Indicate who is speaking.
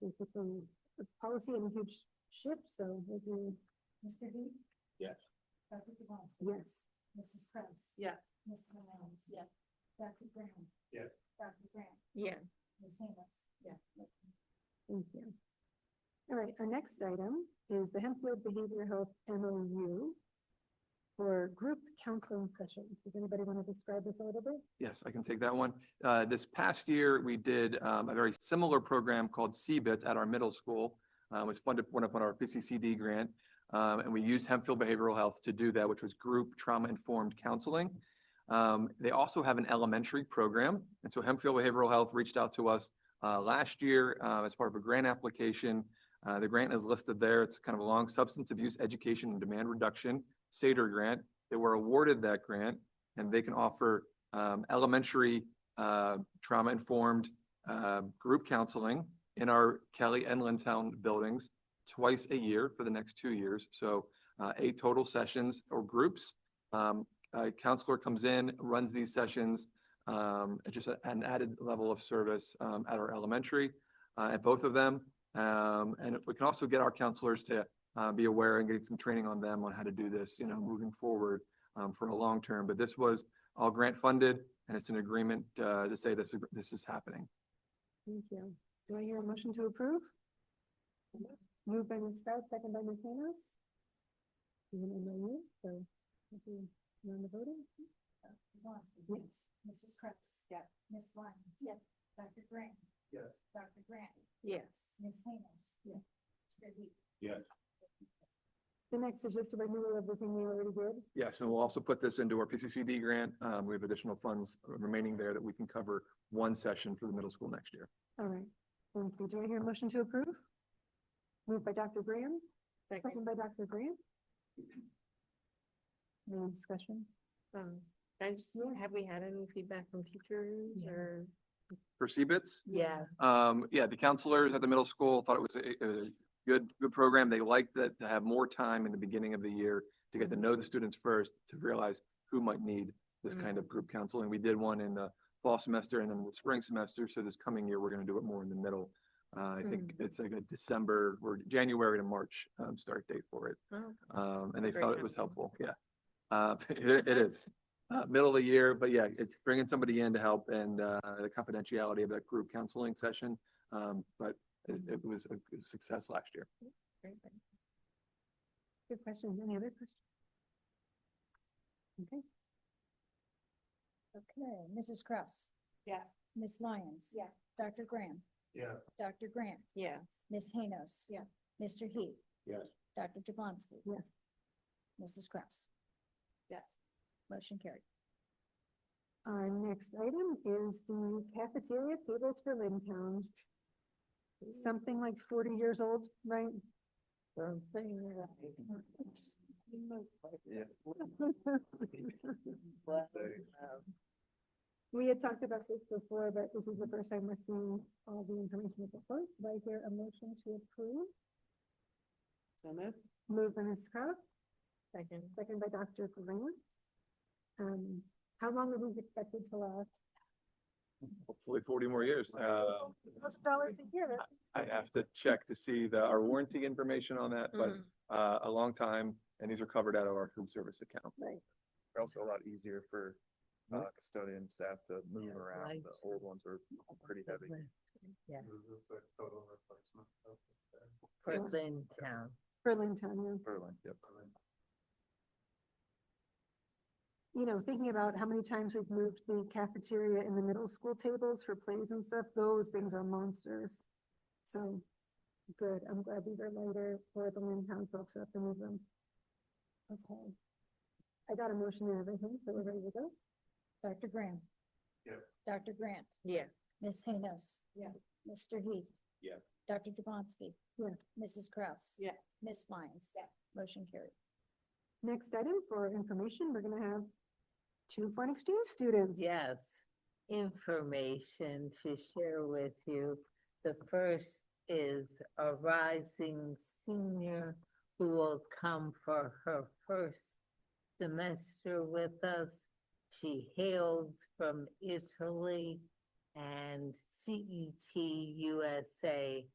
Speaker 1: we took some a policy and a huge shift, so we can,
Speaker 2: Mr. Bean?
Speaker 3: Yes.
Speaker 2: Dr. Jablonski?
Speaker 1: yes.
Speaker 2: Mrs. Kraus?
Speaker 4: Yeah.
Speaker 2: Mrs. Miles?
Speaker 4: Yeah.
Speaker 2: Dr. Brown?
Speaker 3: Yes.
Speaker 2: Dr. Grant?
Speaker 1: Yeah.
Speaker 2: Ms. Amos?
Speaker 4: Yeah.
Speaker 1: Thank you. All right, our next item is the Hempfield Behavioral Health MOU for group counseling sessions. Does anybody want to describe this a little bit?
Speaker 5: Yes, I can take that one. Uh, This past year, we did um, a very similar program called CBITS at our middle school. uh, which funded, went up on our PCCD grant. um, And we used Hempfield Behavioral Health to do that, which was group trauma-informed counseling. Um, They also have an elementary program. And so Hempfield Behavioral Health reached out to us uh, last year uh, as part of a grant application. Uh, The grant is listed there. It's kind of a long substance abuse education and demand reduction, SADER grant. They were awarded that grant and they can offer um, elementary uh, trauma-informed uh, group counseling in our Kelly and Lintown buildings twice a year for the next two years. So uh, eight total sessions or groups. Um, A counselor comes in, runs these sessions, um, it's just a- an added level of service um, at our elementary, uh, at both of them. Um, And we can also get our counselors to uh, be aware and get some training on them on how to do this, you know, moving forward um, for a long term. But this was all grant funded and it's an agreement uh, to say this, this is happening.
Speaker 1: Thank you. Do I hear a motion to approve? Moved by Ms. Kraus, second by Ms. Manos. Even in the room, so if you want to vote in?
Speaker 2: Dr. Jablonski?
Speaker 1: Yes.
Speaker 2: Mrs. Kraus?
Speaker 4: Yeah.
Speaker 2: Ms. Lyons?
Speaker 4: Yeah.
Speaker 2: Dr. Grant?
Speaker 3: Yes.
Speaker 2: Dr. Grant?
Speaker 4: Yes.
Speaker 2: Ms. Amos?
Speaker 4: Yeah.
Speaker 2: Mr. Bean?
Speaker 3: Yes.
Speaker 1: The next is just a renewal of the thing we already did.
Speaker 5: Yes, and we'll also put this into our PCCD grant. Um, We have additional funds remaining there that we can cover one session for the middle school next year.
Speaker 1: All right. Thank you. Do I hear a motion to approve? Moved by Dr. Graham, second by Dr. Grant. No discussion?
Speaker 6: Um, I just,
Speaker 1: Yeah.
Speaker 6: have we had any feedback from teachers
Speaker 2: Yeah.
Speaker 6: or?
Speaker 5: For CBITS,
Speaker 6: Yeah.
Speaker 5: Um, yeah, the counselors at the middle school thought it was a, a good, good program. They liked that to have more time in the beginning of the year to get to know the students first, to realize who might need this kind of group counseling. We did one in the fall semester and then the spring semester. So this coming year, we're going to do it more in the middle. Uh, I think it's like a December or January to March, um, start date for it.
Speaker 6: Oh,
Speaker 5: Um, and they
Speaker 6: Great
Speaker 5: felt it was
Speaker 6: company.
Speaker 5: helpful, yeah. Uh, it, it is, uh, middle of the year, but yeah, it's bringing somebody in to help and, uh, the confidentiality of that group counseling session. Um, but it, it was a good success last year.
Speaker 6: great.
Speaker 1: Good question. Any other questions? Okay.
Speaker 2: Okay, Mrs. Kraus?
Speaker 4: Yeah.
Speaker 2: Ms. Lyons?
Speaker 4: Yeah.
Speaker 2: Dr. Graham?
Speaker 3: Yeah.
Speaker 2: Dr. Grant?
Speaker 6: Yeah,
Speaker 2: Ms. Haynos?
Speaker 4: Yeah.
Speaker 2: Mr. Heath?
Speaker 3: Yes.
Speaker 2: Dr. Jablonski?
Speaker 1: Yeah.
Speaker 2: Mrs. Kraus?
Speaker 4: Yes.
Speaker 2: Motion carried.
Speaker 1: Our next item is the cafeteria tables for Lintown. Something like forty years old, right?
Speaker 6: something, uh,
Speaker 1: We had talked about this before, but this is the first time we're seeing all the information before. Do I hear a motion to approve?
Speaker 4: So moved.
Speaker 1: Moved by Ms. Kraus,
Speaker 6: second,
Speaker 1: second by Dr. Grant. Um, how long are these expected to last?
Speaker 5: Hopefully forty more years. Uh,
Speaker 1: Thousand dollars a year.
Speaker 5: I have to check to see the, our warranty information on that, but,
Speaker 6: Mm,
Speaker 5: uh, a long time. And these are covered out of our food service account.
Speaker 1: Right.
Speaker 7: They're also a lot easier for
Speaker 5: Mhm.
Speaker 7: uh, custodian staff to move around. The
Speaker 6: right.
Speaker 7: old ones are pretty heavy.
Speaker 6: yeah,
Speaker 3: Total replacement.
Speaker 6: Portland town.
Speaker 1: For Lintown, yeah.
Speaker 7: Berlin, yep.
Speaker 1: you know, thinking about how many times we've moved the cafeteria and the middle school tables for plays and stuff, those things are monsters. So, good, I'm glad these are lighter for the Lintown folks who have to move them. Okay. I got a motion and everything, so we're ready to go.
Speaker 2: Dr. Graham?
Speaker 3: Yeah.
Speaker 2: Dr. Grant?
Speaker 6: Yeah,
Speaker 2: Ms. Haynos?
Speaker 4: Yeah.
Speaker 2: Mr. Heath?
Speaker 3: Yeah.
Speaker 2: Dr. Jablonski?
Speaker 1: Yeah.
Speaker 2: Mrs. Kraus?
Speaker 4: Yeah.
Speaker 2: Ms. Lyons?
Speaker 4: Yeah.
Speaker 2: Motion carried.
Speaker 1: Next item for information, we're gonna have two foreign exchange students.
Speaker 6: yes, information to share with you. The first is a rising senior who will come for her first semester with us. She hails E from Italy and CET USA